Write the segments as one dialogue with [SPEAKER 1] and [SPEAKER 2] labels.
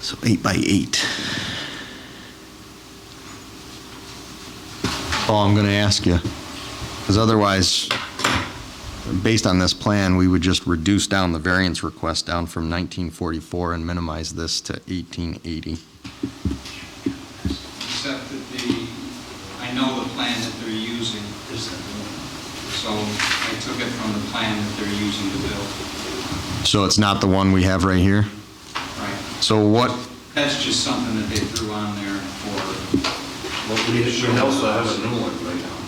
[SPEAKER 1] So eight by eight. All I'm going to ask you, because otherwise, based on this plan, we would just reduce down the variance request down from 1944 and minimize this to 1880.
[SPEAKER 2] Except that the, I know the plan that they're using is that So I took it from the plan that they're using to build,
[SPEAKER 1] So it's not the one we have right here?
[SPEAKER 2] right?
[SPEAKER 1] So what,
[SPEAKER 2] That's just something that they threw on there for,
[SPEAKER 3] Well, we we also have a new one right now.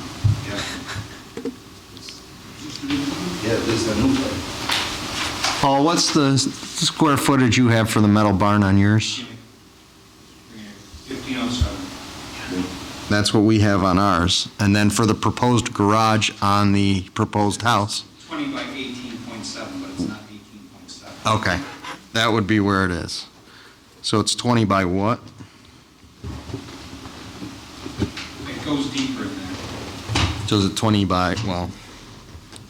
[SPEAKER 2] yeah.
[SPEAKER 3] Yeah, this is a new one.
[SPEAKER 1] Paul, what's the s- square footage you have for the metal barn on yours?
[SPEAKER 2] 1507.
[SPEAKER 1] That's what we have on ours. And then for the proposed garage on the proposed house?
[SPEAKER 2] 20 by 18.7, but it's not 18.7.
[SPEAKER 1] Okay, that would be where it is. So it's 20 by what?
[SPEAKER 2] It goes deeper than that.
[SPEAKER 1] So is it 20 by, well,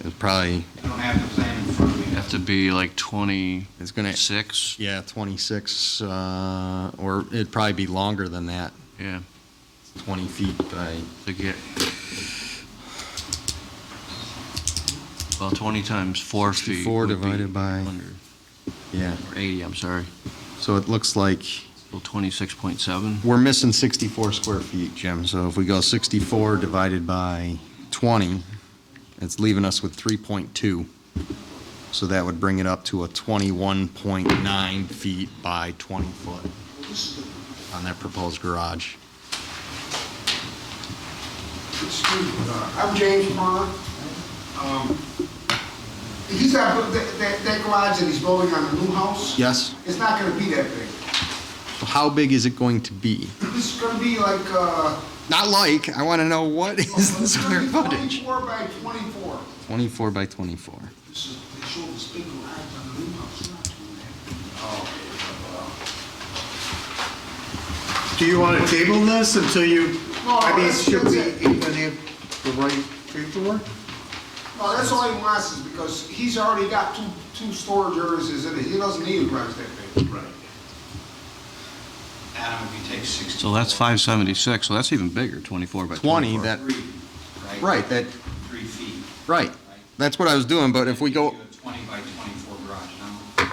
[SPEAKER 1] it's probably,
[SPEAKER 2] I don't have the plan in front of me.
[SPEAKER 4] Have to be like 26?
[SPEAKER 1] it's going to, yeah, 26, uh, or it'd probably be longer than that,
[SPEAKER 4] Yeah,
[SPEAKER 1] 20 feet by,
[SPEAKER 4] to get, well, 20 times 4 feet.
[SPEAKER 1] 64
[SPEAKER 4] would be
[SPEAKER 1] divided by-
[SPEAKER 4] 100,
[SPEAKER 1] yeah.
[SPEAKER 4] Or 80, I'm sorry.
[SPEAKER 1] So it looks like,
[SPEAKER 4] Well, 26.7.
[SPEAKER 1] we're missing 64 square feet, Jim. So if we go 64 divided by 20, it's leaving us with 3.2. So that would bring it up to a 21.9 feet by 20 foot on that proposed garage.
[SPEAKER 5] Excuse me, uh, I'm James Perner. Um, He's got, that, that- that garage that he's building on the new house,
[SPEAKER 1] Yes?
[SPEAKER 5] it's not gonna be that big.
[SPEAKER 1] How big is it going to be?
[SPEAKER 5] It's gonna be like, uh.
[SPEAKER 1] Not like, I want to know what is the
[SPEAKER 5] it's
[SPEAKER 1] square
[SPEAKER 5] gonna be
[SPEAKER 1] footage?
[SPEAKER 5] Twenty-four by twenty-four.
[SPEAKER 1] 24 by 24.
[SPEAKER 5] This is, they showed this big garage on the new house, not doing that.
[SPEAKER 1] Oh.
[SPEAKER 6] Do you want to table this until you,
[SPEAKER 5] No,
[SPEAKER 6] I mean,
[SPEAKER 5] that's-
[SPEAKER 6] should
[SPEAKER 5] that's
[SPEAKER 6] we
[SPEAKER 5] it.
[SPEAKER 6] even have the right paperwork?
[SPEAKER 5] No, that's all he wants is because he's already got two, two storage areas, is it, he doesn't need a garage that big. Right.
[SPEAKER 2] Adam, if you take 60.
[SPEAKER 4] So that's 576, so that's even bigger, 24 by
[SPEAKER 1] 20,
[SPEAKER 4] 24.
[SPEAKER 1] that,
[SPEAKER 2] Three, right?
[SPEAKER 1] right, that,
[SPEAKER 2] Three feet.
[SPEAKER 1] right.
[SPEAKER 2] right?
[SPEAKER 1] That's what I was doing, but if we go,
[SPEAKER 2] Do a 20 by 24 garage. Now,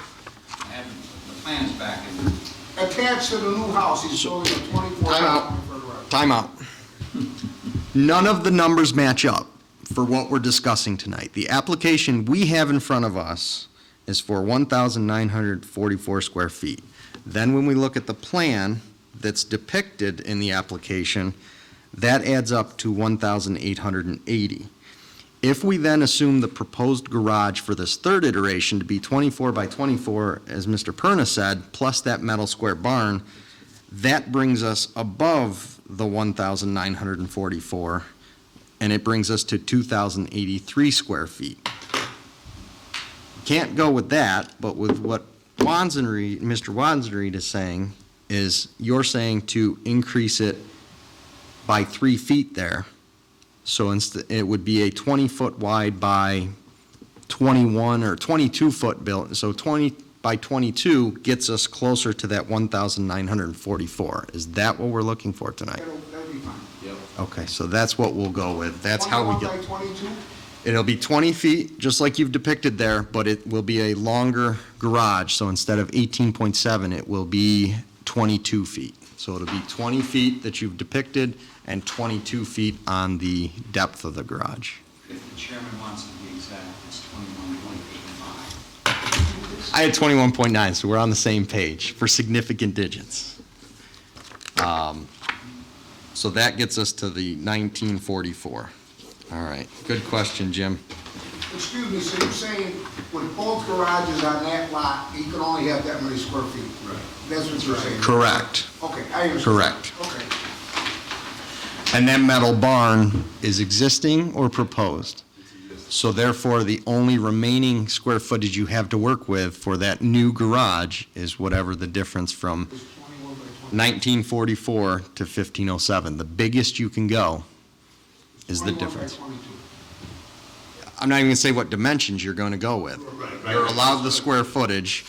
[SPEAKER 2] I haven't, the plan's back in.
[SPEAKER 5] Attached to the new house, he's building a twenty-four
[SPEAKER 1] Time out.
[SPEAKER 5] by twenty-four garage.
[SPEAKER 1] Timeout. None of the numbers match up for what we're discussing tonight. The application we have in front of us is for 1,944 square feet. Then when we look at the plan that's depicted in the application, that adds up to 1,880. If we then assume the proposed garage for this third iteration to be 24 by 24, as Mr. Perna said, plus that metal square barn, that brings us above the 1,944, and it brings us to 2,083 square feet. Can't go with that, but with what Wanzenreed, Mr. Wanzenreed is saying, is you're saying to increase it by three feet there. So inst- it would be a 20-foot wide by 21 or 22-foot built, so 20, by 22 gets us closer to that 1,944. Is that what we're looking for tonight?
[SPEAKER 5] That'll, that'll be fine.
[SPEAKER 1] Okay, so that's what we'll go with. That's how we get,
[SPEAKER 5] 21 by twenty-two?
[SPEAKER 1] it'll be 20 feet, just like you've depicted there, but it will be a longer garage. So instead of 18.7, it will be 22 feet. So it'll be 20 feet that you've depicted and 22 feet on the depth of the garage.
[SPEAKER 2] If the chairman wants to be exact, it's 21.85.
[SPEAKER 1] I had 21.9, so we're on the same page for significant digits. Um, So that gets us to the 1944. All right, good question, Jim.
[SPEAKER 5] Excuse me, so you're saying with both garages on that lot, he can only have that many square feet? Right. That's what you're saying?
[SPEAKER 1] Correct.
[SPEAKER 5] Okay, I understand.
[SPEAKER 1] Correct.
[SPEAKER 5] Okay.
[SPEAKER 1] And that metal barn is existing or proposed? So therefore, the only remaining square footage you have to work with for that new garage is whatever the difference from
[SPEAKER 5] It's 21 by 20.
[SPEAKER 1] 1944 to 1507. The biggest you can go is the
[SPEAKER 5] 21 by
[SPEAKER 1] difference.
[SPEAKER 5] 22.
[SPEAKER 1] I'm not even gonna say what dimensions you're gonna go with. You're allowed the square footage,